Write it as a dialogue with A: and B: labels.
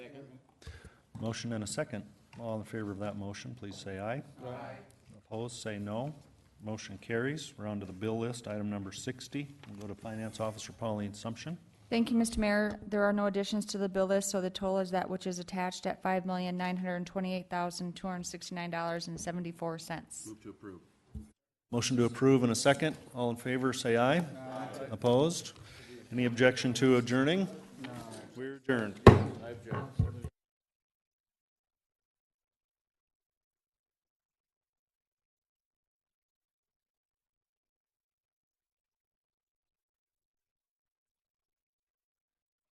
A: Motion and a second. All in favor of that motion, please say aye. Aye. Opposed, say no. Motion carries. We're on to the bill list, item number 60. We'll go to Finance Officer Pauline Sumption.
B: Thank you, Mr. Mayor. There are no additions to the bill list, so the total is that which is attached at five million, nine hundred and twenty-eight thousand, two hundred and sixty-nine dollars and seventy-four cents.
A: Motion to approve and a second. All in favor, say aye. Aye. Opposed? Any objection to adjourning? We're adjourned.